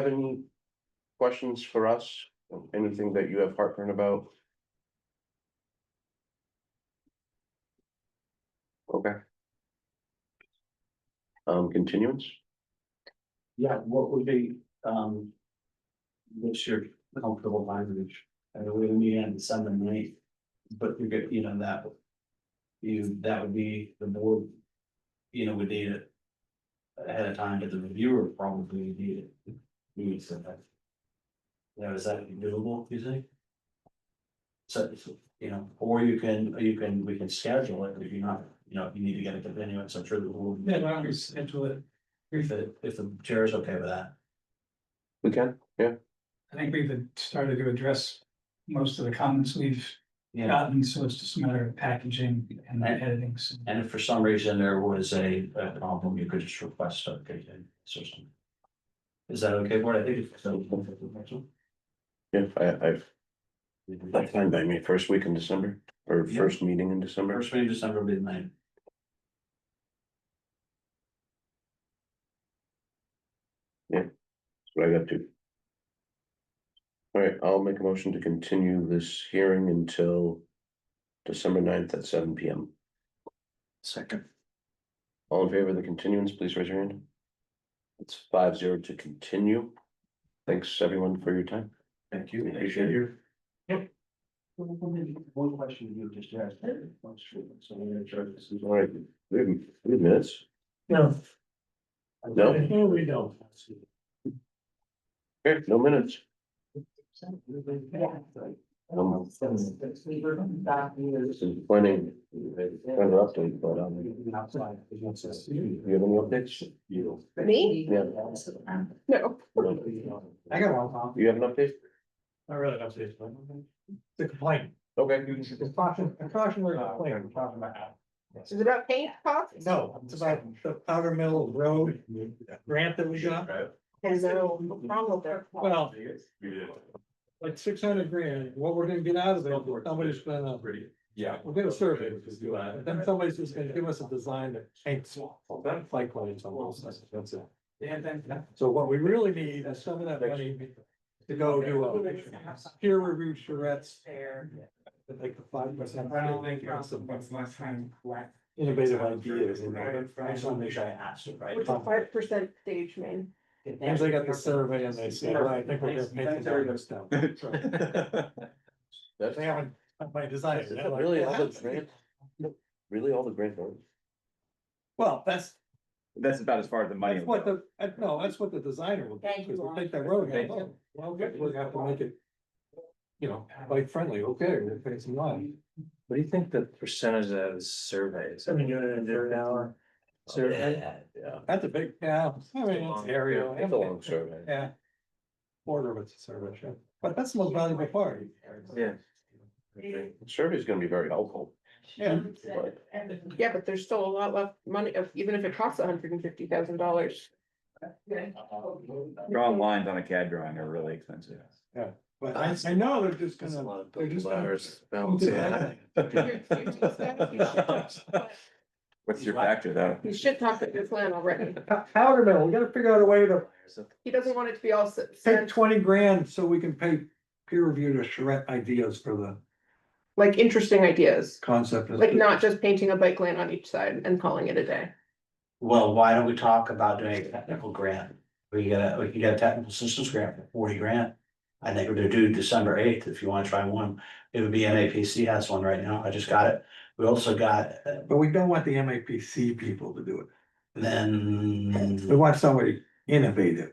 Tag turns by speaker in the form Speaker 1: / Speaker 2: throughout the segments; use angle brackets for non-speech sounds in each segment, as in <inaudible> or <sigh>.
Speaker 1: seven questions for us? Anything that you have heartburn about? Okay. Um, continuance?
Speaker 2: Yeah, what would be, um. What's your comfortable language, and we meet on Sunday night, but you're good, you know, that. You, that would be the board, you know, would need it. Ahead of time, but the reviewer probably would need it. We would send that. Now, is that doable, you think? So, you know, or you can, you can, we can schedule it, if you're not, you know, if you need to get a continuance, I'm sure the board.
Speaker 3: Yeah, why don't we schedule it?
Speaker 2: If the, if the chair is okay with that.
Speaker 1: We can,
Speaker 3: I think we've started to address most of the comments we've gotten, so it's just a matter of packaging and
Speaker 2: And-
Speaker 3: editings.
Speaker 2: And if for some reason there was a, a problem, you could just request a continuance or something. Is that okay, board? I think it's. so.
Speaker 1: yeah, I, I've, that's fine by me, first week in December, or
Speaker 2: Yeah.
Speaker 1: first meeting in December,
Speaker 2: First meeting in December will be the ninth.
Speaker 1: what I got to. All right, I'll make a motion to continue this hearing until December 9th at seven P M.
Speaker 2: Second.
Speaker 1: All in favor of the continuance, please raise your hand. It's five zero to continue. Thanks, everyone, for your time.
Speaker 2: Thank
Speaker 1: We Appreciate you.
Speaker 2: One question you just asked. What's true? So I'm gonna try this.
Speaker 1: All right, we have, we have minutes.
Speaker 2: No.
Speaker 1: No?
Speaker 2: Here we go.
Speaker 1: Okay, no minutes. Um, This is planning, planning update, but um, do you have any updates? You.
Speaker 4: Me?
Speaker 1: Yeah.
Speaker 4: No.
Speaker 2: I got one copy.
Speaker 1: You have an update?
Speaker 2: I really don't see it. The complaint.
Speaker 1: Okay.
Speaker 2: It's caution, a cautionary
Speaker 5: Oh,
Speaker 2: complaint, I'm talking about.
Speaker 4: Is it about paint costs?
Speaker 2: No, it's about the powder mill road grant that we got,
Speaker 4: Has there a problem with their?
Speaker 6: Well, like six hundred grand, what we're gonna get out of it, somebody's gonna,
Speaker 2: yeah.
Speaker 6: we'll get a survey, then somebody's just gonna give us a design that paints. That's like what it's almost, that's it. So what we really need is some of that money to go do a peer review charrettes, like the five percent.
Speaker 5: I don't think it's what's last time.
Speaker 6: Innovative ideas, and
Speaker 5: Right.
Speaker 2: I just wanna make sure I asked it right.
Speaker 4: Which is five percent stage main.
Speaker 6: as they got uh, the survey and they say, well, I think we're gonna paint
Speaker 2: Thanks,
Speaker 6: the
Speaker 2: everybody.
Speaker 6: windows down. They
Speaker 1: That's
Speaker 6: haven't, my design.
Speaker 1: is that really all the grant? Really all the grant? money?
Speaker 6: Well, that's,
Speaker 7: That's about as far as the money.
Speaker 6: That's what the, uh, no, that's what the designer will do,
Speaker 4: Thank you,
Speaker 6: because
Speaker 4: Lauren.
Speaker 6: they take that road, and
Speaker 7: Thank
Speaker 6: go, oh, well, good, we're gonna have to make it. You know, bike friendly, okay, we're gonna pay some money.
Speaker 8: What do you think the percentage of that is surveys? I mean, you're in an hour. Survey,
Speaker 1: Yeah.
Speaker 6: That's a big, yeah, I mean, it's area.
Speaker 1: It's a long survey.
Speaker 6: Yeah. Quarter of it's a survey, sure, but that's the most valuable part,
Speaker 8: yeah.
Speaker 1: Survey's gonna be very helpful.
Speaker 6: yeah,
Speaker 1: but-
Speaker 4: Yeah, but there's still a lot left money, if- even if it costs hundred and fifty thousand dollars. <laughs>
Speaker 7: Drawing lines on a CAD drawing are really expensive.
Speaker 6: but I, I know they're just
Speaker 8: That's a
Speaker 6: gonna,
Speaker 8: lot of
Speaker 6: they're just gonna-
Speaker 8: letters.
Speaker 1: um,
Speaker 6: Yeah. <laughs>
Speaker 7: What's your factor though?
Speaker 4: You should talk to <laughs> this land already.
Speaker 6: Pow- powder mill, we gotta figure out a way to
Speaker 4: He doesn't want it to be all. s-
Speaker 6: take
Speaker 4: sand-
Speaker 6: twenty grand so we can pay peer review to charrette ideas for the
Speaker 4: Like interesting ideas,
Speaker 6: concept. of-
Speaker 4: like not just painting a bike lane on each side and calling it a day.
Speaker 2: Well, why don't we talk about doing a technical grant? We got, a we can get a technical assistance grant for forty grand. I think we're gonna do December eighth, if you wanna try one, it would be MAPC has one right now, I just got it. We also got, uh,
Speaker 6: But we don't want the MAPC people to do it. We
Speaker 2: then,
Speaker 6: want somebody innovative.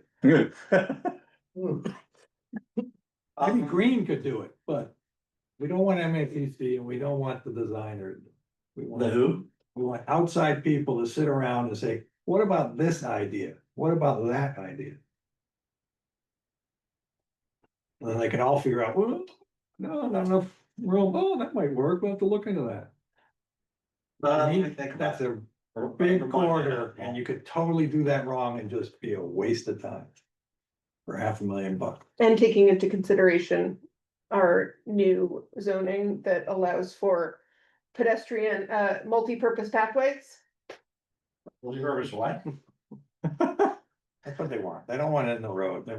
Speaker 6: Maybe
Speaker 2: Um,
Speaker 6: Green could do it, but we don't want MAPC and we don't want the designer. We
Speaker 2: the
Speaker 6: want,
Speaker 2: who?
Speaker 6: we want outside people to sit around and say, what about this idea? What about that idea? And then they can all figure out, well, no, not enough room. Oh, that might work. We'll have to look into that.
Speaker 2: Uh,
Speaker 6: He-
Speaker 2: let me think about
Speaker 6: That's
Speaker 2: it.
Speaker 6: a big corridor and you could totally do that wrong and just be a waste of time. For half a million bucks. <laughs>
Speaker 4: And taking into consideration our new zoning that allows for pedestrian, uh, multi-purpose pathways.
Speaker 2: Well, you heard us what?
Speaker 6: That's what they want. They don't want it in the road. They